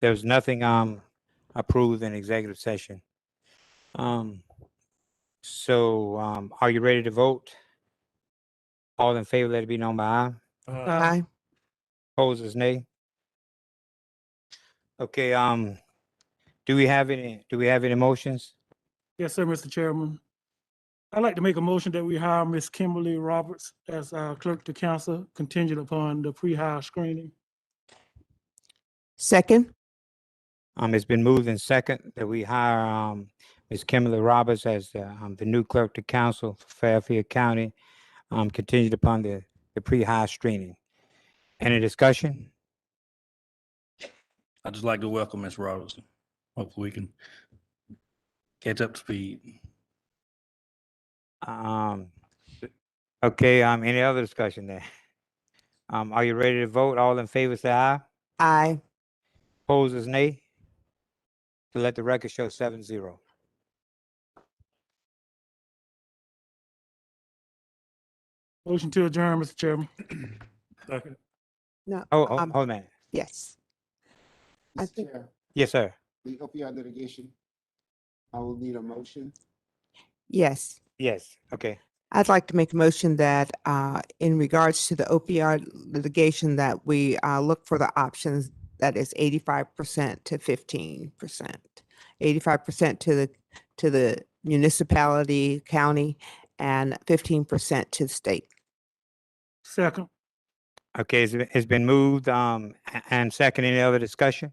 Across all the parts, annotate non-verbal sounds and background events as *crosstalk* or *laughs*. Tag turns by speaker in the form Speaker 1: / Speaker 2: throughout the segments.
Speaker 1: There was nothing, um, approved in executive session. Um, so, um, are you ready to vote? All in favor, let it be known by aye.
Speaker 2: Uh,
Speaker 3: Uh,
Speaker 4: Aye.
Speaker 1: Opposed is nay. Okay, um, do we have any, do we have any motions?
Speaker 3: Yes, sir, Mr. Chairman. I'd like to make a motion that we hire Ms. Kimberly Roberts as our clerk to council contingent upon the pre-hire screening.
Speaker 4: Second.
Speaker 1: Um, it's been moved in second that we hire, um, Ms. Kimberly Roberts as, the, um, the new clerk to council for Fairfield County, um, contingent upon the, the pre-hire screening. Any discussion?
Speaker 2: I'd just like to welcome Ms. Robertson. Hopefully we can catch up to speed.
Speaker 1: Um, okay, um, any other discussion there? *laughs* Um, are you ready to vote? All in favor, say aye.
Speaker 4: Aye.
Speaker 1: Opposed is nay. To let the record show seven zero.
Speaker 3: Motion to adjourn, Mr. Chairman.
Speaker 4: No.
Speaker 1: Oh, oh,
Speaker 4: um,
Speaker 1: hold a minute.
Speaker 4: Yes. I
Speaker 5: Mr.
Speaker 4: think-
Speaker 5: Chair,
Speaker 1: Yes, sir.
Speaker 5: the opioid litigation, I will need a motion.
Speaker 4: Yes.
Speaker 1: Yes, okay.
Speaker 4: I'd like to make a motion that uh, in regards to the opioid litigation, that we uh, look for the options that is eighty-five percent to fifteen percent. Eighty-five percent to the, to the municipality, county, and fifteen percent to the state.
Speaker 3: Second,
Speaker 1: Okay, it's, it's been moved, um, a- and second, any other discussion?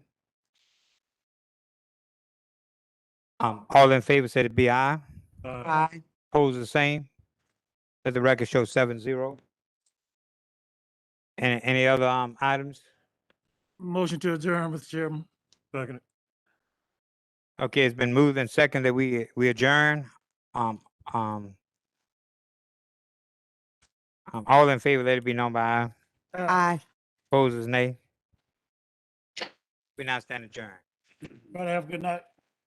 Speaker 1: Um, all in favor, say it be aye.
Speaker 4: Aye.
Speaker 1: Opposed, the same. Let the record show seven zero. And any other, um, items?
Speaker 3: motion to adjourn, Mr. Chairman. Second.
Speaker 1: Okay, it's been moved and second that we, we adjourn. Um, um, um, all in favor, let it be known by aye.
Speaker 4: Aye.
Speaker 1: Opposed is nay. We now stand adjourned.
Speaker 3: Everybody have a good night.